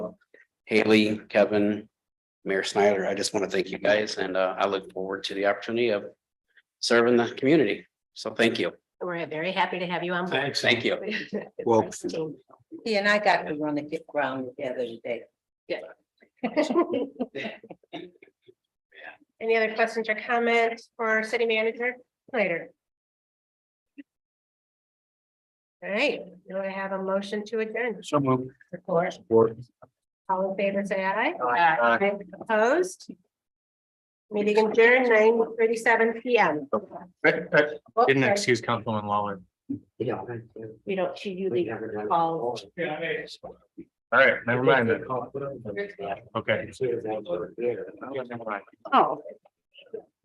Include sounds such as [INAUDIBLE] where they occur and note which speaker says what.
Speaker 1: Haley, Kevin, Mayor Snyder, I just want to thank you guys and uh, I look forward to the opportunity of serving the community. So thank you.
Speaker 2: We're very happy to have you on board.
Speaker 1: Thanks. Thank you.
Speaker 3: Well-
Speaker 4: He and I got to run the get ground together today.
Speaker 2: [LAUGHS] Any other questions or comments for our city manager later? All right, do I have a motion to adjourn?
Speaker 3: So moved.
Speaker 2: Of course,
Speaker 3: Or-
Speaker 2: all in favor, say aye.
Speaker 3: Aye.
Speaker 2: Opposed? Meeting adjourned nine thirty-seven P M.
Speaker 3: Didn't excuse Councilman Lawler.
Speaker 2: We don't, she you leave all.
Speaker 3: All right, never mind then. Okay.
Speaker 2: Oh,